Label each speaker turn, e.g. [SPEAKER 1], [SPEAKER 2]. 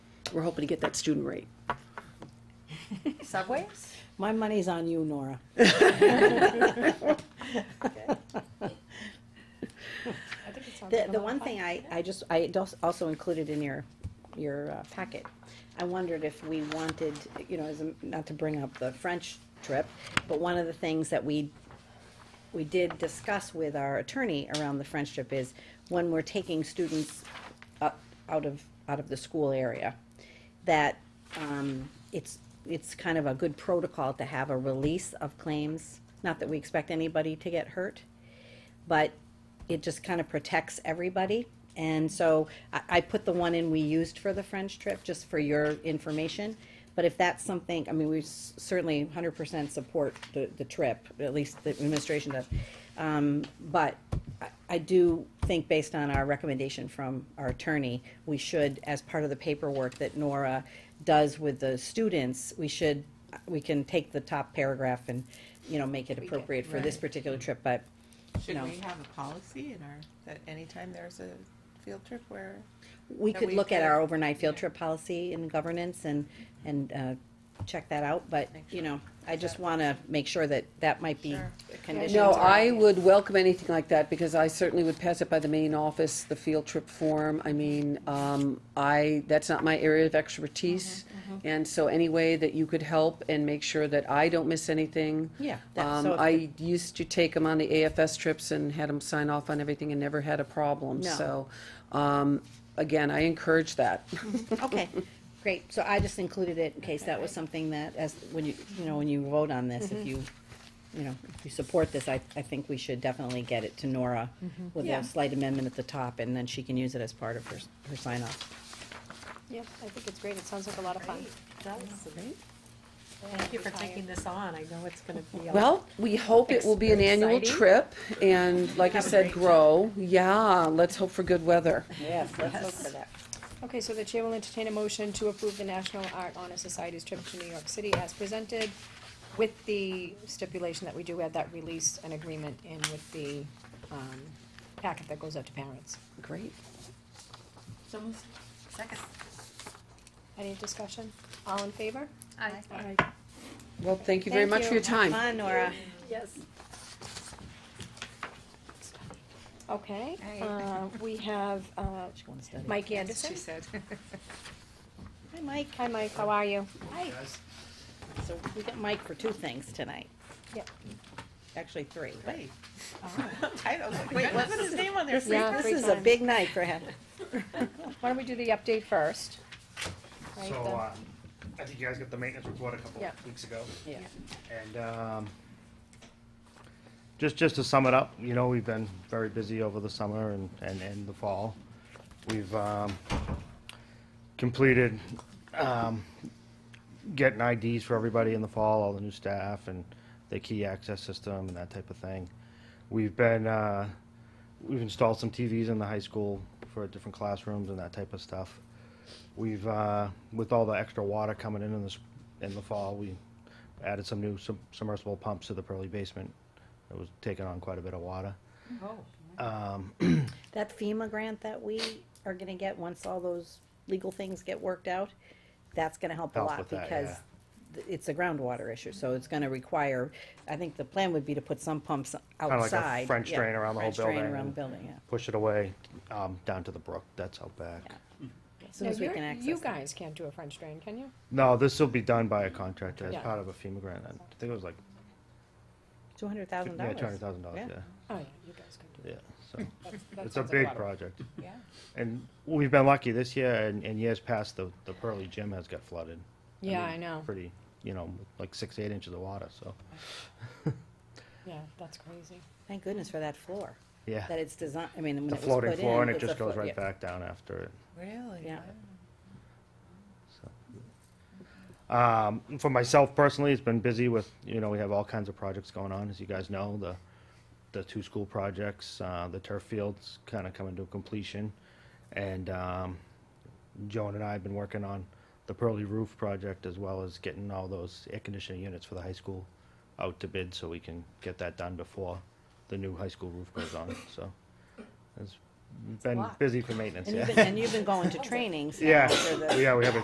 [SPEAKER 1] we're hoping to get that student rate.
[SPEAKER 2] Subways?
[SPEAKER 3] My money's on you, Nora.
[SPEAKER 2] I think it sounds
[SPEAKER 3] The,
[SPEAKER 2] like a
[SPEAKER 3] the
[SPEAKER 2] lot
[SPEAKER 3] one
[SPEAKER 2] of fun.
[SPEAKER 3] thing I, I just, I dos- also included in your, your uh, packet, I wondered if we wanted, you know, as a- not to bring up the French trip, but one of the things that we, we did discuss with our attorney around the French trip is when we're taking students up, out of, out of the school area, that, um, it's, it's kind of a good protocol to have a release of claims. Not that we expect anybody to get hurt, but it just kind of protects everybody. And so I, I put the one in we used for the French trip, just for your information. But if that's something, I mean, we s- certainly hundred percent support the, the trip, at least the administration does. Um, but I, I do think based on our recommendation from our attorney, we should, as part of the paperwork that Nora does with the students, we should, we can take the top paragraph and, you know, make it
[SPEAKER 2] Tweak it,
[SPEAKER 3] appropriate for this
[SPEAKER 2] right.
[SPEAKER 3] particular trip, but
[SPEAKER 4] Should
[SPEAKER 3] No.
[SPEAKER 4] we have a policy in our, that anytime there's a field trip where,
[SPEAKER 3] We
[SPEAKER 4] that
[SPEAKER 3] could
[SPEAKER 4] we
[SPEAKER 3] look at
[SPEAKER 4] could-
[SPEAKER 3] our overnight field
[SPEAKER 4] yeah.
[SPEAKER 3] trip policy and governance and, and, uh, check that out, but, you know, I just wanna make sure that that might be
[SPEAKER 4] Sure.
[SPEAKER 3] a condition.
[SPEAKER 5] No,
[SPEAKER 3] to-
[SPEAKER 5] I would welcome anything like that, because I certainly would pass it by the main office, the field trip form. I mean, um, I, that's not my area of expertise.
[SPEAKER 3] Mm-hmm,
[SPEAKER 5] And so any way that you could help and make sure that I don't miss anything.
[SPEAKER 3] Yeah, that-
[SPEAKER 5] Um,
[SPEAKER 3] so if
[SPEAKER 5] I used to take them on the AFS trips and had them sign off on everything and never had a problem,
[SPEAKER 3] No.
[SPEAKER 5] so, um, again, I encourage that.
[SPEAKER 3] Okay, great, so I just included it in case that was something that, as, when you, you know, when you vote on this,
[SPEAKER 2] Mm-hmm.
[SPEAKER 3] if you, you know, if you support this, I, I think we should definitely get it to Nora with
[SPEAKER 2] Mm-hmm. Yeah.
[SPEAKER 3] a slight amendment at the top, and then she can use it as part of her, s- her sign off.
[SPEAKER 2] Yeah, I think it's great. It sounds like a lot of fun.
[SPEAKER 6] Thank you for taking this on, I know it's gonna be. a-
[SPEAKER 5] Well, we hope it will be an annual
[SPEAKER 6] Exciting.
[SPEAKER 5] trip, and like I said, grow. Yeah, let's hope for good weather.
[SPEAKER 3] Yes, let's look for that.
[SPEAKER 2] Okay, so the chair will entertain a motion to approve the National Art Honor Society's trip to New York City as presented with the stipulation that we do add that release and agreement in with the, um, packet that goes out to parents.
[SPEAKER 5] Great.
[SPEAKER 4] second,
[SPEAKER 2] Any discussion? All in favor? Aye.
[SPEAKER 5] Well, thank you very
[SPEAKER 2] Thank
[SPEAKER 5] much for your time.
[SPEAKER 3] Come on, Nora.
[SPEAKER 2] Yes. Okay,
[SPEAKER 4] Aye.
[SPEAKER 2] uh, we have, uh,
[SPEAKER 3] She's going to study.
[SPEAKER 2] Mike
[SPEAKER 4] that's what
[SPEAKER 2] Anderson.
[SPEAKER 4] she said.
[SPEAKER 3] Hi, Mike.
[SPEAKER 2] Hi, Mike, how are you?
[SPEAKER 3] Hi. So we got Mike for two things tonight,
[SPEAKER 2] Yep.
[SPEAKER 3] actually three. but-
[SPEAKER 4] Wait. I was like, wait, what was his name on there?
[SPEAKER 2] Yeah,
[SPEAKER 3] This
[SPEAKER 2] three
[SPEAKER 3] is a
[SPEAKER 2] times.
[SPEAKER 3] big night for him.
[SPEAKER 2] Why don't we do the update first? Right,
[SPEAKER 7] So,
[SPEAKER 2] the-
[SPEAKER 7] um, I think you guys got the maintenance report a couple
[SPEAKER 2] Yeah.
[SPEAKER 7] weeks ago.
[SPEAKER 3] Yeah.
[SPEAKER 7] And, um, just, just to sum it up, you know, we've been very busy over the summer and, and, and the fall. We've, um, completed, um, getting IDs for everybody in the fall, all the new staff and the key access system and that type of thing. We've been, uh, we've installed some TVs in the high school for different classrooms and that type of stuff. We've, uh, with all the extra water coming in in the, s- in the fall, we added some new sub- submersible pumps to the pearly basement. It was taking on quite a bit of water. Um,
[SPEAKER 3] That FEMA grant that we are gonna get, once all those legal things get worked out, that's gonna help a
[SPEAKER 7] Help
[SPEAKER 3] lot
[SPEAKER 7] with that,
[SPEAKER 3] because th- it's a groundwater issue, so it's gonna require, I think the plan would be to put some pumps
[SPEAKER 7] like a
[SPEAKER 3] outside.
[SPEAKER 7] French
[SPEAKER 3] yeah,
[SPEAKER 7] drain around the whole
[SPEAKER 3] French drain
[SPEAKER 7] building
[SPEAKER 3] around the
[SPEAKER 7] and-
[SPEAKER 3] building, yeah.
[SPEAKER 7] push it away, um, down to the brook, that's out back.
[SPEAKER 3] As soon
[SPEAKER 2] Hmm. Now,
[SPEAKER 3] as we
[SPEAKER 2] you're-
[SPEAKER 3] can access.
[SPEAKER 2] You
[SPEAKER 3] that.
[SPEAKER 2] guys can't do a French drain, can you?
[SPEAKER 7] No, this will be done by a contractor as
[SPEAKER 2] Yeah.
[SPEAKER 7] part of a FEMA grant. I think it was like,
[SPEAKER 3] Two hundred thousand
[SPEAKER 7] yeah,
[SPEAKER 3] dollars.
[SPEAKER 7] two hundred thousand dollars, yeah,
[SPEAKER 2] Oh, yeah, you guys can do
[SPEAKER 7] yeah, so.
[SPEAKER 2] that. That
[SPEAKER 7] It's
[SPEAKER 2] sounds like
[SPEAKER 7] a
[SPEAKER 2] lot
[SPEAKER 7] big
[SPEAKER 2] of-
[SPEAKER 7] project.
[SPEAKER 2] Yeah.
[SPEAKER 7] And we've been lucky this year and, and years past, the, the Pearly Gym has got flooded.
[SPEAKER 2] Yeah,
[SPEAKER 7] mean,
[SPEAKER 2] I know.
[SPEAKER 7] Pretty, you know, like six, eight inches of water, so,
[SPEAKER 2] Yeah, that's crazy.
[SPEAKER 3] Thank goodness for that floor,
[SPEAKER 7] yeah.
[SPEAKER 3] that it's designed, I mean, when it
[SPEAKER 7] The
[SPEAKER 3] was put in.
[SPEAKER 7] floating floor and it
[SPEAKER 3] it's a
[SPEAKER 7] just goes
[SPEAKER 3] float- yeah.
[SPEAKER 7] right back down after it.
[SPEAKER 4] Really?
[SPEAKER 3] Yeah.
[SPEAKER 7] Um, for myself personally, it's been busy with, you know, we have all kinds of projects going on, as you guys know, the, the two school projects, uh, the turf fields kind of coming to completion. And, um, Joan and I have been working on the Pearly Roof project as well as getting all those air conditioning units for the high school out to bid so we can get that done before the new high school roof goes on, so. It's been
[SPEAKER 2] lot.
[SPEAKER 7] busy for maintenance,
[SPEAKER 3] And you've
[SPEAKER 7] yeah.
[SPEAKER 3] been, and you've been going to trainings. now
[SPEAKER 7] Yeah,
[SPEAKER 3] for the-
[SPEAKER 7] yeah, we have a